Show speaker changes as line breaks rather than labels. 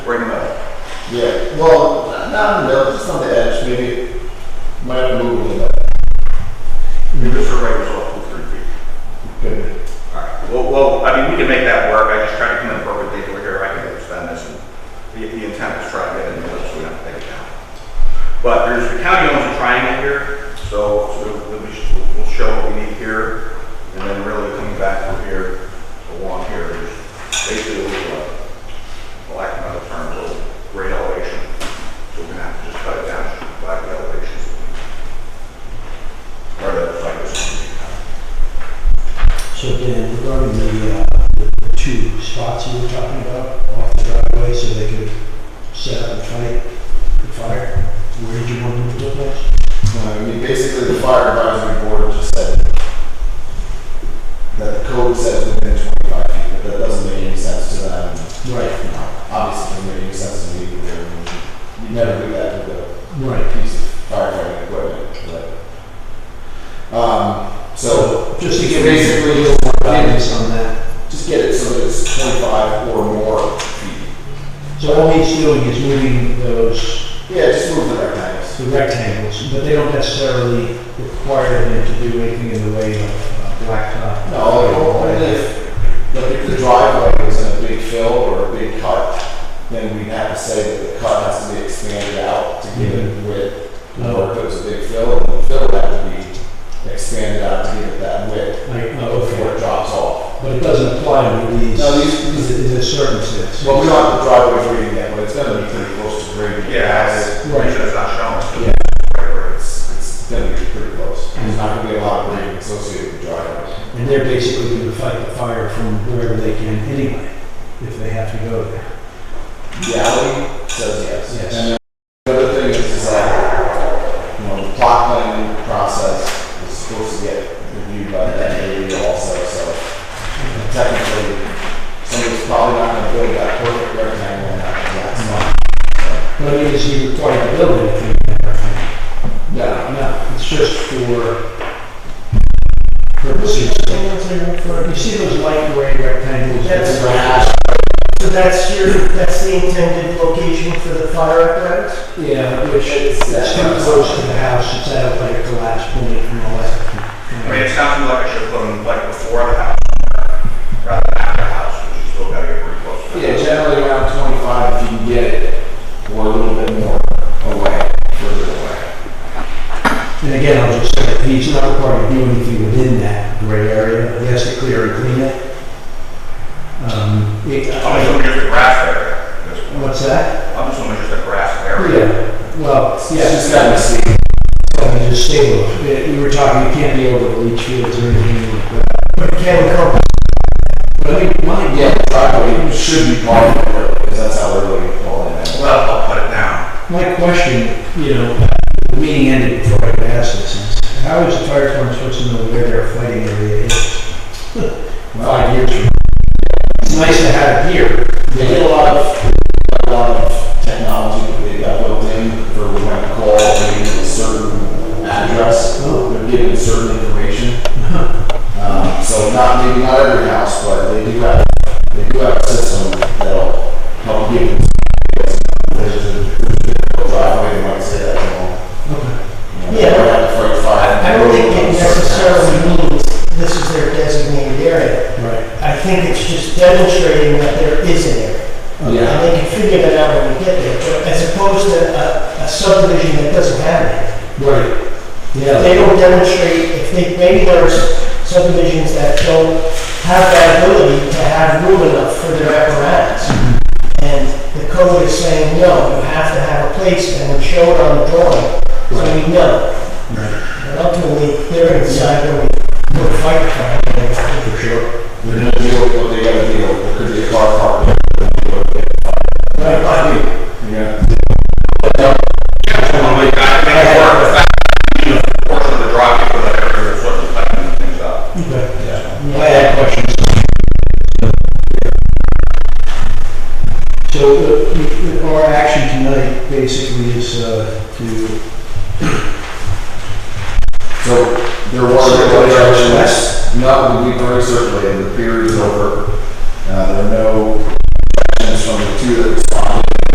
Yeah, well, not know, just on the edge, maybe, might have moved a little
Because her rate was off to three feet.
bit.
All right, well, well, I mean, we can make that work, I just tried to come in perpendicular here, I can understand this, and the, the intent was try to get in the middle, so we don't take it down. But there's, the county owns a triangle here, so, so we'll, be- we'll show what we need here, and then really coming back from here, along here, there's basically a little, uh, for lack of another term, a little grade elevation, so we're gonna have to just cut it down, by the elevations. Or that's like this.
So Dan, regarding the, uh, the two spots you were talking about off the driveway so they could set up and fight the fire, where did you want them to look like?
I mean, Uh, basically, the fire advisory board just said that the code says within twenty-five feet, but that doesn't make any sense to them.
Right,
Obviously, doesn't make any sense to me, either. you never do that with a
right.
piece of firefighting equipment, but, um, so,
Just to give you
basically, just want to-
guidance on that.
just get it so that it's twenty-five or more feet.
So all he's doing is moving those,
Yeah, just move the rectangles.
the rectangles, but they don't necessarily require them to do anything in the way of uh, blacktop.
No, only if, like, if the driveway was in a big fill or a big cut, then we'd have to say that the cut has to be expanded out to give it width.
Oh.
Or if it was a big fill, then the fill would have to be expanded out to give it that width
Like, oh,
before
okay.
it drops off.
But it doesn't apply to these,
No, these- these-
in this circumstance.
Well, we don't have the driveway reading yet, but it's gonna be pretty close to grade.
Yeah,
Right.
right, that's not shown.
Yeah. It's, it's gonna be pretty close. There's not gonna be a lot of grading associated with driveways.
And they're basically going to fight the fire from wherever they can anyway, if they have to go there.
Galley says yes. And
Yes.
then the other thing is, is that, you know, the plot planning process is supposed to get reviewed by the NAB also, so technically, somebody's probably not gonna build that perfect rectangle in that exact spot.
But I mean, is he required to build anything in that area?
No.
No, it's just for purposes of, you see those light gray rectangles?
That's
Those
Right.
are-
So that's your, that's the intended location for the fire apparatus?
Yeah, which it's
It's that
too
kind of
close
stuff.
to the house, it's at like a collapse point and all
I mean,
that.
it sounds like I should put them like before the house, rather than after the house, which is still gotta get pretty close. to it.
Yeah, generally around twenty-five if you can get it, or a little bit more away, further away.
And again, I'll just say, that he's not required to do anything within that gray area, he has to clear and clean it. Um, it-
I'm assuming just a grass area. at this point.
What's that?
I'm assuming just a grass area.
Yeah, well,
Yeah,
yeah,
it's just gotta be seen.
I mean, just stable. Yeah, We were talking, you can't be over the leach fields or anything like that.
But again, the company
But I mean, my,
Yeah, the driveway should be part of it, because that's how we're really calling it.
Well, I'll put it down.
my question, you know, the meeting ended before I could ask this, is how is the fire department supposed to know where their fighting area is? Five years from now. It's nice to have it here.
They get a lot of, a lot of technology that they got built in for when I call, maybe a certain address, they're given certain information. Um, so not, maybe not every house, but they do have, they do have a system that'll help give them. There's a, there's a driveway, they might say that, you know. You know, they don't have to fight fire.
I don't think it necessarily means this is their designated area.
Right.
I think it's just demonstrating that there is an area.
Yeah.
And they can figure that out when we get there, but as opposed to a, a subdivision that doesn't have it.
Right.
They
Yeah.
don't demonstrate, if they, maybe there's subdivisions that don't have that ability to have room enough for their apparatus. And the code is saying, no, you have to have a place, and we show it on the drawing, so we know. And ultimately, they're inside when we put a fire truck in there.
For sure.
They're gonna deal with what they gotta deal, with. it could be a car park, it could be a. Yeah.
I'm like, I can make it work, the fact, that, you know, the portion of the driveway, for that area, there's sort of tightening things up.
I had questions. So uh, we- we- our action tonight basically is uh, to
So there were regulations, no, we recirculated, the period is over. Uh, there are no sections from the two that